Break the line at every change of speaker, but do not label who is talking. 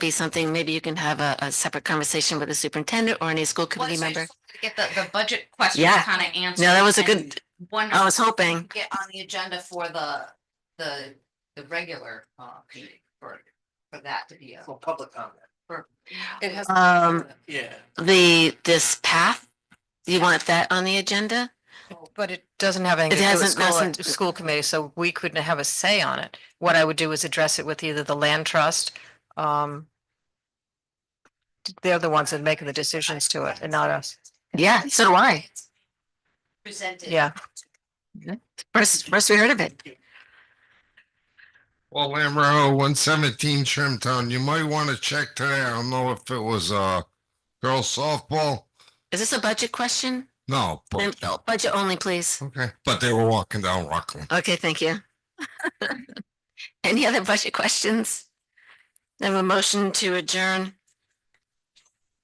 be something, maybe you can have a, a separate conversation with the superintendent or any school
Well,
committee
so I just
member.
wanted to Get the, the budget questions
Yeah.
kind of answered.
No, that was a
and
good, Oh, I
Wonder,
was hoping.
get on the agenda for the, the, the regular, uh, meeting for, for that to be a.
For public comment,
It has.
Um,
yeah.
the, this path, you want that on the agenda?
But it doesn't have anything
It
to do with
hasn't-
school,
doesn't-
uh, school committee, so we couldn't have a say on it. What I would do is address it with either the land trust, um. They're the ones that make the decisions to it and not us.
Yeah, so do I.
Presented.
Yeah.
First, first we heard of it.
Well, Lamro, one seventeen Trimtown, you might want to check today. I don't know if it was uh girls softball.
Is this a budget question?
No,
Then
but
Budget only, please.
okay, but they were walking down Rockland.
Okay, thank you. Any other budget questions? Then a motion to adjourn.